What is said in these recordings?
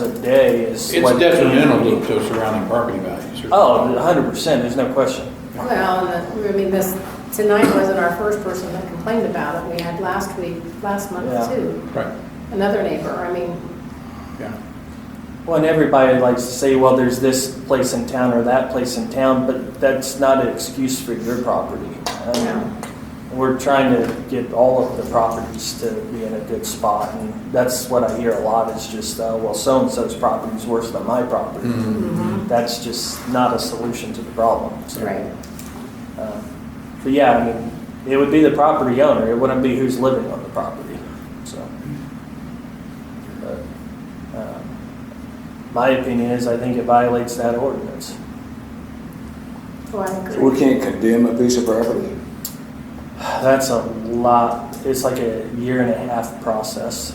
a day is. It's what- detrimental to surrounding property values. Oh, hundred percent, there's no question. Well, and the- I mean, this, tonight wasn't our first person that complained about it. We had last week, last Yeah. month too, Right, another neighbor. I mean, yeah. Well, and everybody likes to say, well, there's this place in town or that place in town, but that's not an excuse for your property. Um, No. We're trying to get all of the properties to be in a good spot, and that's what I hear a lot, is just, uh, well, so-and-so's property's worse than my Mm-hmm. property. That's just not a solution to the problem, so. right. Um, But yeah, I mean, it would be the property owner, it wouldn't be who's living on the property, so. But, um, My opinion is, I think it violates that ordinance. Well, I agree. We can't condemn a piece of property. That's a lot, it's like a year and a half process.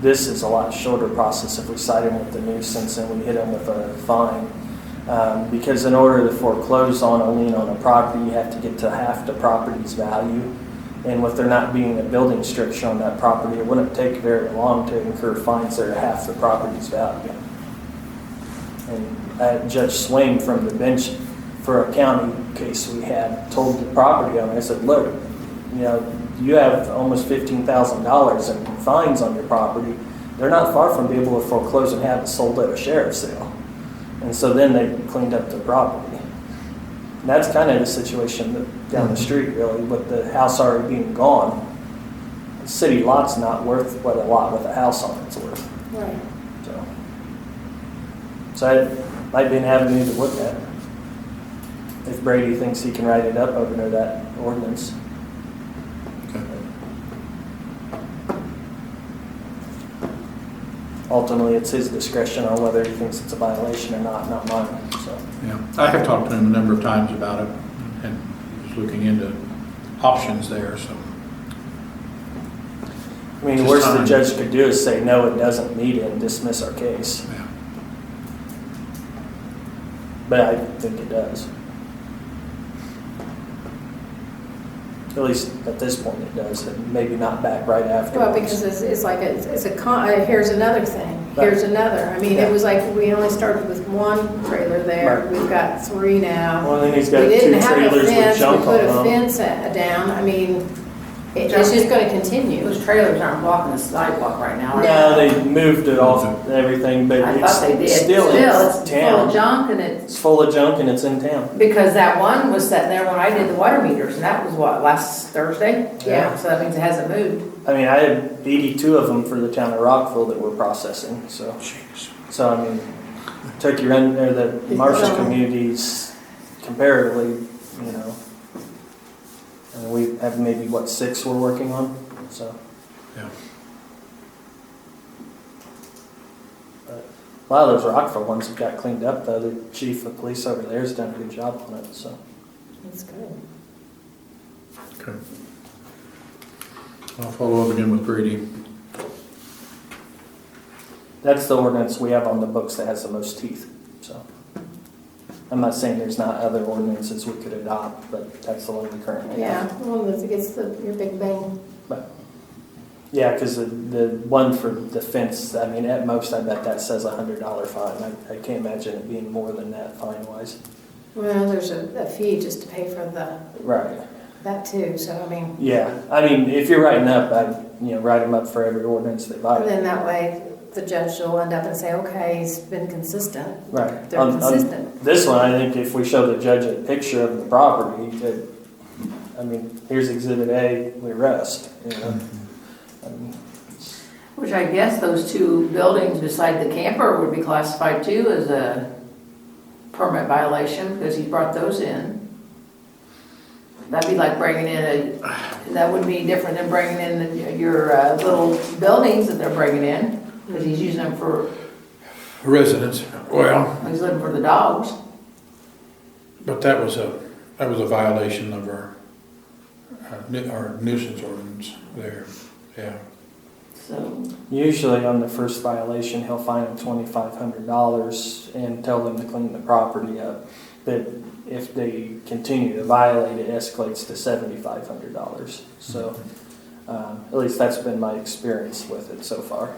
This is a lot shorter process if we cite him with the nuisance and we hit him with a fine. Um, because in order to foreclose on a lien on a property, you have to get to half the property's value. And with there not being a building structure on that property, it wouldn't take very long to incur fines that are half the property's value. And uh, Judge Swain from the bench for a county case we had told the property owner, I said, look, you know, you have almost fifteen thousand dollars in fines on your property. They're not far from being able to foreclose and have it sold at a sheriff's sale. And so then they cleaned up the property. And that's kind of the situation that- down the street really, with the house already being gone. City lot's not worth what a lot with a house on it's worth. Right. So, so that might be an avenue to look at. If Brady thinks he can write it up over there, that ordinance. Ultimately, it's his discretion on whether he thinks it's a violation or not, not mine, so. Yeah, I have talked to him a number of times about it, and he was looking into options there, so. I mean, the Just worst the time. judge could do is say, no, it doesn't meet it and dismiss our case, yeah. but I think it does. At least at this point it does, and maybe not back right afterwards. Well, because it's, it's like, it's it's a con, uh, here's another thing, here's another. I mean, Yeah. it was like, we only started with one trailer there. Right. We've got three now. Well, then he's We got two didn't have a trailers with fence. junk on We put a them. fence uh, down. I mean, it- it's just gonna continue. Those trailers aren't blocking the sidewalk right now. are No, they moved it off and everything, but I it's thought they did. still in it's full of town. junk and it's, It's full of junk and it's in town. because that one was sitting there when I did the water meters and that was what, last Thursday? Yeah. So that means it hasn't moved. I mean, I had eighty-two of them for the town of Rockville that we're processing, so, Jeez. so I mean, Turkey Run, or the Marshall communities comparatively, you know. And we have maybe, what, six we're working on, so. Yeah. A lot of those Rockville ones have got cleaned up, though. The chief of police over there's done a good job on it, so. That's good. Okay. I'll follow up again with Brady. That's the ordinance we have on the books that has the most teeth, so. I'm not saying there's not other ordinances we could adopt, but that's the one we currently have. Yeah, well, that's against the, your big bang. But- Yeah, because the, the one for the fence, I mean, at most, I bet that says a hundred dollar fine. I, I can't imagine it being more than that fine wise. Well, there's a, a fee just to pay for the, Right. that too, so I mean, Yeah, I mean, if you're writing up, I, you know, write them up for every ordinance they and violate. then that way, the judge will end up and say, okay, he's been consistent. Right. They're On- on consistent. This one, I think if we show the judge a picture of the property, that, I mean, here's exhibit A, we rest, you know? I mean, Which I guess those two buildings beside the camper would be classified too as a permit violation because he brought those in. That'd be like bringing in a, that would be different than bringing in your uh, little buildings that they're bringing in because he's using them for Residents, well, He's looking for the dogs. but that was a, that was a violation of our, our nu- our nuisance ordinance there, yeah. So, Usually on the first violation, he'll fine them twenty-five hundred dollars and tell them to clean the property up. But if they continue to violate, it escalates to seventy-five hundred dollars. So, um, at least that's been my experience with it so far.